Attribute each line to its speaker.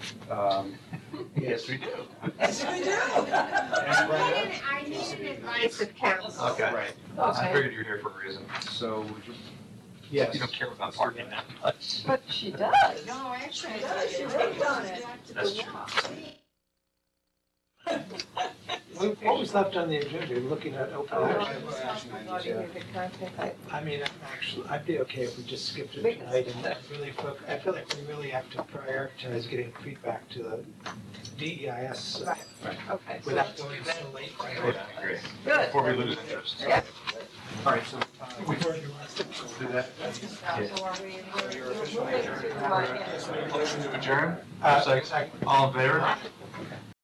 Speaker 1: Um,
Speaker 2: Yes, we do.
Speaker 3: Yes, we do.
Speaker 2: And
Speaker 4: I
Speaker 2: Brad-
Speaker 4: need an- I need an advice of counsel.
Speaker 1: Okay.
Speaker 2: Right,
Speaker 1: I
Speaker 3: Okay.
Speaker 1: figured you were here for a reason.
Speaker 2: so would you?
Speaker 1: You don't care about parking that much.
Speaker 5: But she does.
Speaker 4: No, actually.
Speaker 3: She does, she worked on it.
Speaker 1: That's true.
Speaker 6: What what was left on the agenda, You're looking at open
Speaker 5: Oh,
Speaker 6: action?
Speaker 2: Action items, yeah.
Speaker 5: I-
Speaker 6: I mean, I'm actually, I'd be okay if we just skipped it
Speaker 5: We-
Speaker 6: tonight and really focus, I feel like we really have to prioritize getting feedback to the E DEIS
Speaker 5: Right. Okay, so
Speaker 6: uh, without
Speaker 5: that's
Speaker 6: going so late.
Speaker 1: Yeah, I agree.
Speaker 5: good.
Speaker 1: Before we lose interest.
Speaker 5: Yeah.
Speaker 2: All right, so uh, we
Speaker 6: We've already lost it.
Speaker 2: do that.
Speaker 5: So are we-
Speaker 2: So you're officially
Speaker 5: We're moving
Speaker 2: adjourned.
Speaker 5: to, uh, yeah.
Speaker 1: Motion to adjourn?
Speaker 6: Uh,
Speaker 1: Second.
Speaker 6: second.
Speaker 1: All in favor?